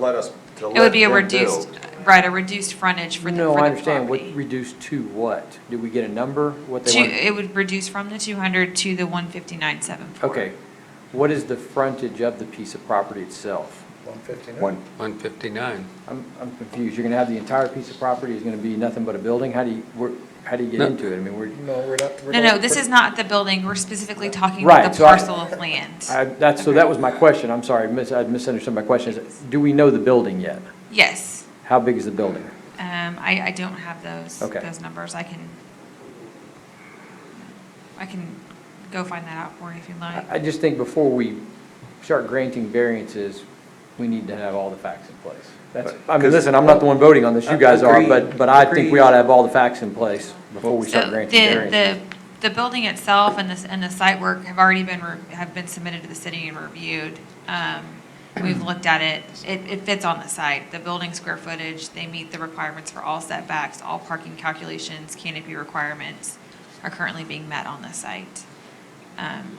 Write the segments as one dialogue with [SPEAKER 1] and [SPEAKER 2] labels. [SPEAKER 1] let us, to let
[SPEAKER 2] It would be a
[SPEAKER 1] them do.
[SPEAKER 2] reduced, right, a reduced frontage for the,
[SPEAKER 3] No, I
[SPEAKER 2] for the
[SPEAKER 3] understand. What,
[SPEAKER 2] property.
[SPEAKER 3] reduced to what? Did we get a number? What
[SPEAKER 2] Two,
[SPEAKER 3] they want?
[SPEAKER 2] it would reduce from the two hundred to the one fifty-nine, seven four.
[SPEAKER 3] Okay. What is the frontage of the piece of property itself?
[SPEAKER 4] One fifty-nine.
[SPEAKER 1] One,
[SPEAKER 5] 159.
[SPEAKER 3] I'm, I'm confused. You're gonna have the entire piece of property is gonna be nothing but a building? How do you, where, how do you get
[SPEAKER 5] No.
[SPEAKER 3] into it? I mean, we're,
[SPEAKER 4] No, we're not. we're
[SPEAKER 2] No,
[SPEAKER 4] not-
[SPEAKER 2] no, this is not the building, we're specifically talking
[SPEAKER 3] Right,
[SPEAKER 2] about the
[SPEAKER 3] so I-
[SPEAKER 2] parcel of land.
[SPEAKER 3] I, that's, so that was my question. I'm sorry, mis, I misunderstood my question. Is- Do we know the building yet?
[SPEAKER 2] Yes,
[SPEAKER 3] How big is the building?
[SPEAKER 2] um, I, I don't have those,
[SPEAKER 3] Okay.
[SPEAKER 2] those numbers, I can, I can go find that out for you if you'd like.
[SPEAKER 3] I, I just think before we start granting variances, we need to have all the facts in place. That's, I mean, listen, I'm not the one voting on this, you guys are, but, but I think we ought to have all the facts in place before we start
[SPEAKER 2] So the,
[SPEAKER 3] granting variances.
[SPEAKER 2] the, the building itself and the, and the site work have already been, re- have been submitted to the city and reviewed. Um, We've looked at it. It, it fits on the site. The building square footage, they meet the requirements for all setbacks, all parking calculations, canopy requirements are currently being met on the site. Um,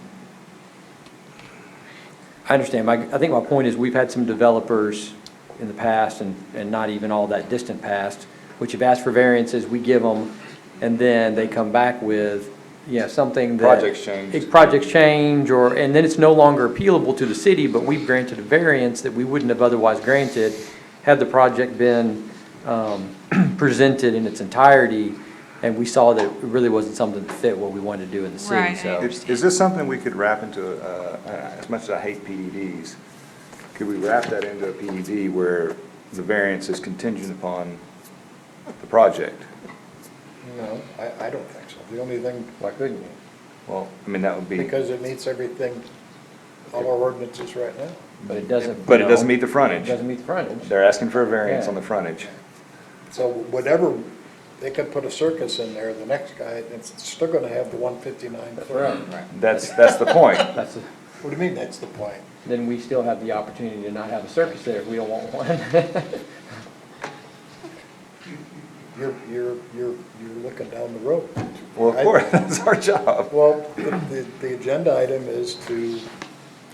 [SPEAKER 3] I understand, my, I think my point is, we've had some developers in the past, and, and not even all that distant past, which have asked for variances, we give them, and then they come back with, yeah, something that.
[SPEAKER 1] Projects change.
[SPEAKER 3] It- Projects change, or, and then it's no longer appealable to the city, but we've granted a variance that we wouldn't have otherwise granted had the project been, um, presented in its entirety, and we saw that it really wasn't something that fit what we wanted to do in the city,
[SPEAKER 2] Right, I
[SPEAKER 3] so.
[SPEAKER 1] is is this something we could wrap into, uh, as much as I hate PDDs, could we wrap that into a PDD where the variance is contingent upon the project?
[SPEAKER 4] No, I, I don't think so. The only thing,
[SPEAKER 3] Why couldn't you?
[SPEAKER 1] Well, I mean, that would be,
[SPEAKER 4] because it meets everything, all our ordinances right now.
[SPEAKER 3] But it doesn't.
[SPEAKER 1] but it doesn't
[SPEAKER 3] no.
[SPEAKER 1] meet the frontage.
[SPEAKER 3] Doesn't meet the frontage.
[SPEAKER 1] They're asking for a variance
[SPEAKER 3] Yeah.
[SPEAKER 1] on the frontage.
[SPEAKER 4] So whatever, they could put a circus in there, the next guy, it's still gonna have the one fifty-nine.
[SPEAKER 3] Right.
[SPEAKER 1] That's, that's the point.
[SPEAKER 3] That's, a-
[SPEAKER 4] What do you mean, that's the point?
[SPEAKER 3] then we still have the opportunity to not have a circus there if we don't want one.
[SPEAKER 4] You're, you're, you're, you're looking down the road.
[SPEAKER 1] Well, of
[SPEAKER 4] I-
[SPEAKER 1] course, that's our job.
[SPEAKER 4] Well, the, the agenda item is to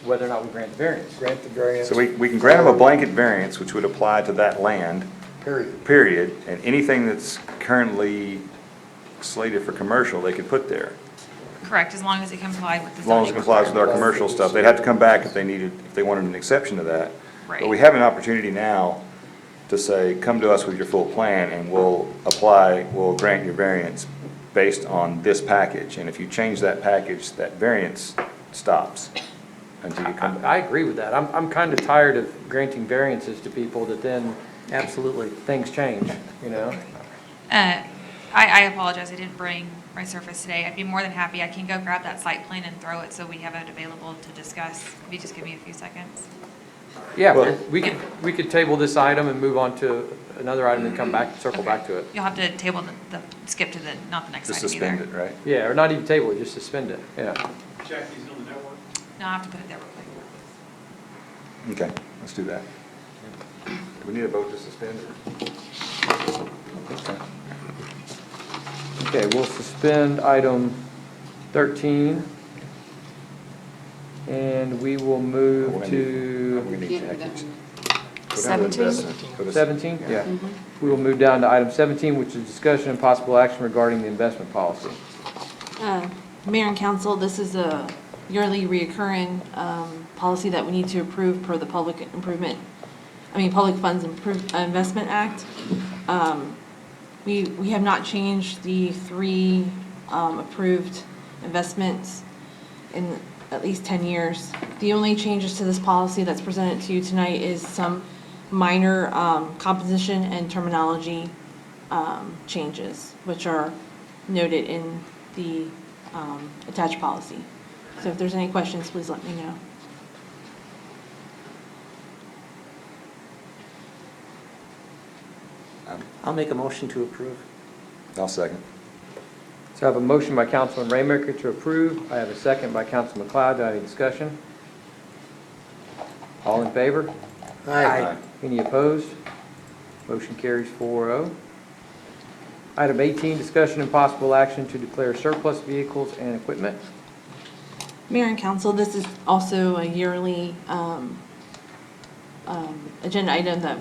[SPEAKER 3] Whether or not we grant the variance.
[SPEAKER 4] grant the variance.
[SPEAKER 1] So we, we can grant them a blanket variance, which would apply to that land,
[SPEAKER 4] Period.
[SPEAKER 1] period, and anything that's currently slated for commercial, they could put there.
[SPEAKER 2] Correct, as long as it complied with the
[SPEAKER 1] As long as it
[SPEAKER 2] zoning
[SPEAKER 1] complies with our
[SPEAKER 2] requirements.
[SPEAKER 1] commercial stuff, they'd have to come back if they needed, if they wanted an exception to that. But we
[SPEAKER 2] Right.
[SPEAKER 1] have an opportunity now to say, come to us with your full plan and we'll apply, we'll grant your variance based on this package. And if you change that package, that variance stops until you come back.
[SPEAKER 3] I, I agree with that. I'm, I'm kind of tired of granting variances to people that then absolutely things change, you know?
[SPEAKER 2] Uh, I, I apologize, I didn't bring my Surface today. I'd be more than happy, I can go grab that site plan and throw it so we have it available to discuss. If you just give me a few seconds.
[SPEAKER 3] Yeah,
[SPEAKER 1] Well-
[SPEAKER 3] we could, we could table this item and move on to another item and come back, circle back to it.
[SPEAKER 2] You'll have to table the, the, skip to the, not the next
[SPEAKER 1] Just
[SPEAKER 2] item
[SPEAKER 1] suspend
[SPEAKER 2] either.
[SPEAKER 1] it, right?
[SPEAKER 3] Yeah, or not even table it, just suspend it, yeah.
[SPEAKER 6] Jackie's on the network.
[SPEAKER 2] No, I have to put it there real quick.
[SPEAKER 1] Okay, let's do that. Do we need a vote to suspend or?
[SPEAKER 3] Okay, we'll suspend item 13. And we will
[SPEAKER 1] Oh,
[SPEAKER 3] move to
[SPEAKER 1] We need package.
[SPEAKER 7] Seventeen.
[SPEAKER 1] Go to-
[SPEAKER 3] 17?
[SPEAKER 1] Yeah.
[SPEAKER 3] We will move down to item 17, which is discussion and possible action regarding the investment policy.
[SPEAKER 7] Uh, Mayor and council, this is a yearly reoccurring um, policy that we need to approve per the Public Improvement, I mean, Public Funds Improve- uh, Investment Act. Um, We, we have not changed the three um, approved investments in at least 10 years. The only changes to this policy that's presented to you tonight is some minor um, composition and terminology um, changes, which are noted in the um, attached policy. So if there's any questions, please let me know.
[SPEAKER 8] I'll make a motion to approve.
[SPEAKER 1] I'll second.
[SPEAKER 3] So I have a motion by Councilman Raymaker to approve. I have a second by Councilman McLeod. Do I have any discussion? All in favor?
[SPEAKER 1] Aye.
[SPEAKER 3] Any opposed? Motion carries 4-0. Item 18, discussion and possible action to declare surplus vehicles and equipment.
[SPEAKER 7] Mayor and council, this is also a yearly um, um, agenda item that